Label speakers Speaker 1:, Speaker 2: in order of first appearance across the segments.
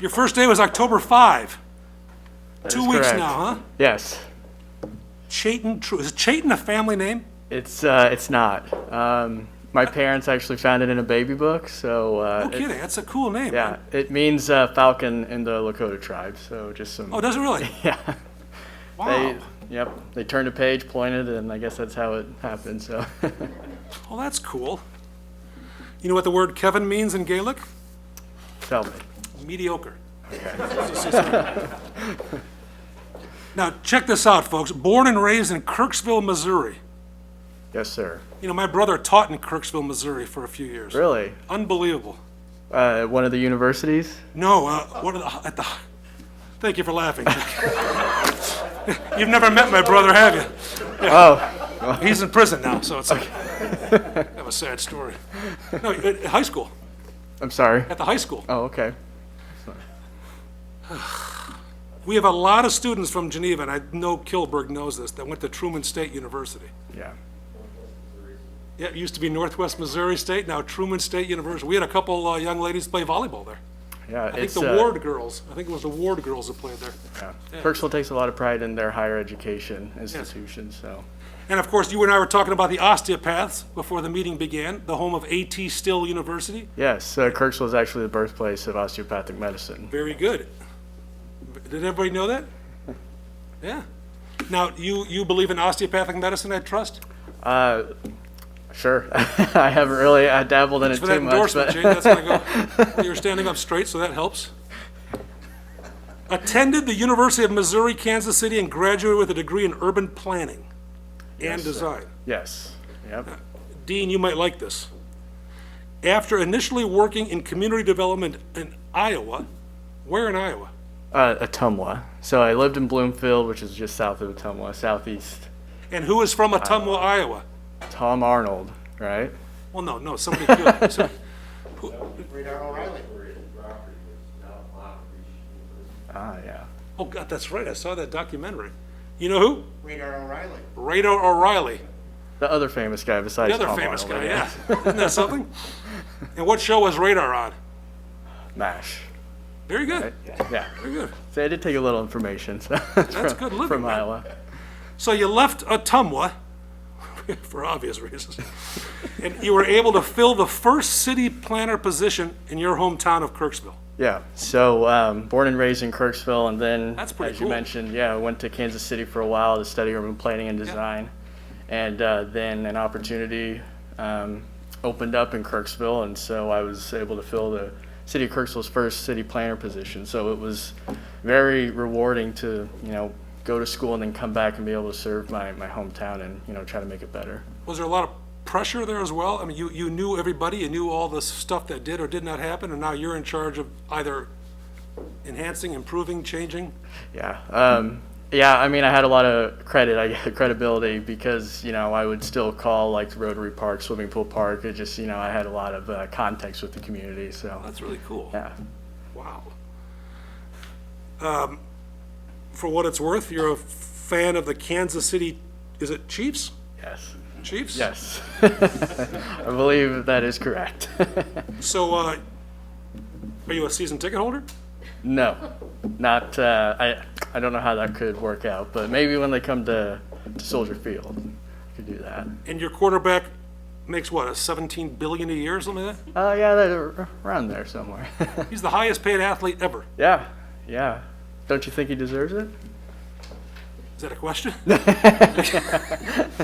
Speaker 1: Your first day was October 5.
Speaker 2: That
Speaker 1: Two
Speaker 2: is
Speaker 1: weeks
Speaker 2: correct.
Speaker 1: now, huh?
Speaker 2: Yes.
Speaker 1: Chayton, Tru- is Chayton a family name?
Speaker 2: It's uh, it's not. Um, my parents actually found it in a baby book, so uh,
Speaker 1: No
Speaker 2: it-
Speaker 1: kidding, that's a cool name.
Speaker 2: yeah,
Speaker 1: man.
Speaker 2: it means uh, falcon in the Lakota tribe. So just some.
Speaker 1: Oh, does it really?
Speaker 2: yeah.
Speaker 1: Wow.
Speaker 2: They, yep. They turned a page, pointed, and I guess that's how it happened. So
Speaker 1: Well, that's cool. You know what the word Kevin means in Gaelic?
Speaker 2: tell me.
Speaker 1: mediocre. Now, check this out, folks. Born and raised in Kirksville, Missouri.
Speaker 2: Yes, sir.
Speaker 1: You know, my brother taught in Kirksville, Missouri for a few years.
Speaker 2: Really?
Speaker 1: Unbelievable.
Speaker 2: Uh, one of the universities?
Speaker 1: No, uh, what are the, at the, thank you for laughing. You've never met my brother, have you? Oh. He's in prison now, so it's like, kind of a sad story. No, at at high school,
Speaker 2: I'm sorry.
Speaker 1: at the high school.
Speaker 2: Oh, okay.
Speaker 1: We have a lot of students from Geneva, and I know Kilberg knows this, that went to Truman State University.
Speaker 2: Yeah.
Speaker 1: Yeah, it used to be Northwest Missouri State, now Truman State University. We had a couple uh, young ladies play volleyball there.
Speaker 2: Yeah.
Speaker 1: I think
Speaker 2: it's,
Speaker 1: the
Speaker 2: uh,
Speaker 1: Ward girls, I think it was the Ward girls that played there.
Speaker 2: Yeah. Kirksville takes a lot of pride in their higher education institutions, so.
Speaker 1: And of course, you and I were talking about the osteopaths before the meeting began, the home of A.T. Still University.
Speaker 2: Yes, uh, Kirksville is actually the birthplace of osteopathic medicine.
Speaker 1: Very good. Did everybody know that? Yeah. Now, you, you believe in osteopathic medicine, I trust?
Speaker 2: Uh, sure, I haven't really uh, dabbled in it
Speaker 1: For
Speaker 2: too
Speaker 1: that
Speaker 2: much,
Speaker 1: endorsement,
Speaker 2: but
Speaker 1: Jane, that's gonna go, well, you're standing up straight, so that helps. Attended the University of Missouri, Kansas City, and graduated with a degree in urban planning and design.
Speaker 2: yes, yep,
Speaker 1: Dean, you might like this. After initially working in community development in Iowa, where in Iowa?
Speaker 2: uh, Atumwa. So I lived in Bloomfield, which is just south of Atumwa, southeast.
Speaker 1: And who is from Atumwa, Iowa?
Speaker 2: Tom Arnold, right?
Speaker 1: Well, no, no, somebody killed, so-
Speaker 2: Ah, yeah.
Speaker 1: oh God, that's right, I saw that documentary. You know who?
Speaker 3: Radar O'Reilly.
Speaker 1: Radar O'Reilly.
Speaker 2: The other famous guy besides
Speaker 1: The other
Speaker 2: Tom
Speaker 1: famous guy,
Speaker 2: Arnold, I
Speaker 1: yeah.
Speaker 2: guess.
Speaker 1: Isn't that something? And what show was Radar on?
Speaker 2: Mash.
Speaker 1: Very good,
Speaker 2: Yeah.
Speaker 1: very good.
Speaker 2: So I did take a little information. So That's from,
Speaker 1: good living,
Speaker 2: From
Speaker 1: man.
Speaker 2: Iowa.
Speaker 1: So you left Atumwa, for obvious reasons, and you were able to fill the first city planner position in your hometown of Kirksville.
Speaker 2: Yeah. So um, born and raised in Kirksville, and then
Speaker 1: That's pretty
Speaker 2: as
Speaker 1: cool.
Speaker 2: you mentioned, yeah, I went to Kansas City for a while to study urban planning and design, and uh, then an opportunity um, opened up in Kirksville, and so I was able to fill the city of Kirksville's first city planner position. So it was very rewarding to you know go to school and then come back and be able to serve my, my hometown and you know try to make it better.
Speaker 1: Was there a lot of pressure there as well? I mean, you, you knew everybody, you knew all the stuff that did or did not happen, and now you're in charge of either enhancing, improving, changing?
Speaker 2: Yeah. Um, yeah, I mean, I had a lot of credit, I credibility because, you know, I would still call like Rotary Park, Swimming Pool Park. It just, you know, I had a lot of uh, context with the community. So,
Speaker 1: That's really cool.
Speaker 2: yeah.
Speaker 1: Wow. Um, For what it's worth, you're a fan of the Kansas City, is it Chiefs?
Speaker 2: Yes.
Speaker 1: Chiefs?
Speaker 2: Yes. I believe that is correct.
Speaker 1: So, uh, are you a season ticket holder?
Speaker 2: no, not, uh, I, I don't know how that could work out, but maybe when they come to, to Soldier Field, I could do that.
Speaker 1: And your quarterback makes what, a 17 billion a year or something like that?
Speaker 2: Oh, yeah, they're around there somewhere.
Speaker 1: He's the highest paid athlete ever.
Speaker 2: yeah, yeah. Don't you think he deserves it?
Speaker 1: Is that a question?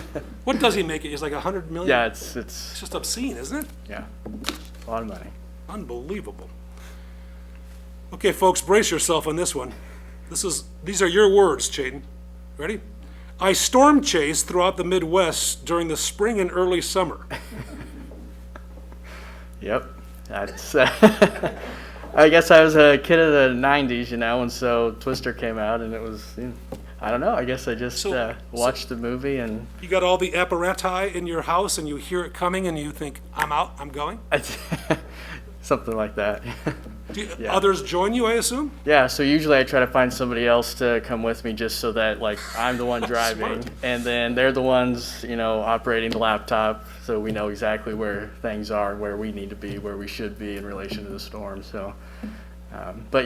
Speaker 1: What does he make it? He's like 100 million?
Speaker 2: Yeah, it's, it's,
Speaker 1: It's just obscene, isn't it?
Speaker 2: Yeah, a lot of money.
Speaker 1: Unbelievable. Okay, folks, brace yourself on this one. This is, these are your words, Chayton. Ready? I storm chased throughout the Midwest during the spring and early summer.
Speaker 2: Yep, that's. Uh, I guess I was a kid of the '90s, you know, and so Twister came out, and it was. You know, I don't know. I guess I just
Speaker 1: So-
Speaker 2: uh, watched the movie, and
Speaker 1: You got all the apparatus in your house, and you hear it coming, and you think, "I'm out, I'm going."
Speaker 2: I, something like that.
Speaker 1: Do you- Others join you, I assume.
Speaker 2: yeah. So usually I try to find somebody else to come with me, just so that like I'm the one driving, and then they're the ones, you know, operating the laptop, so we know exactly where things are, where we need to be, where we should be in relation to the storm. So, um, but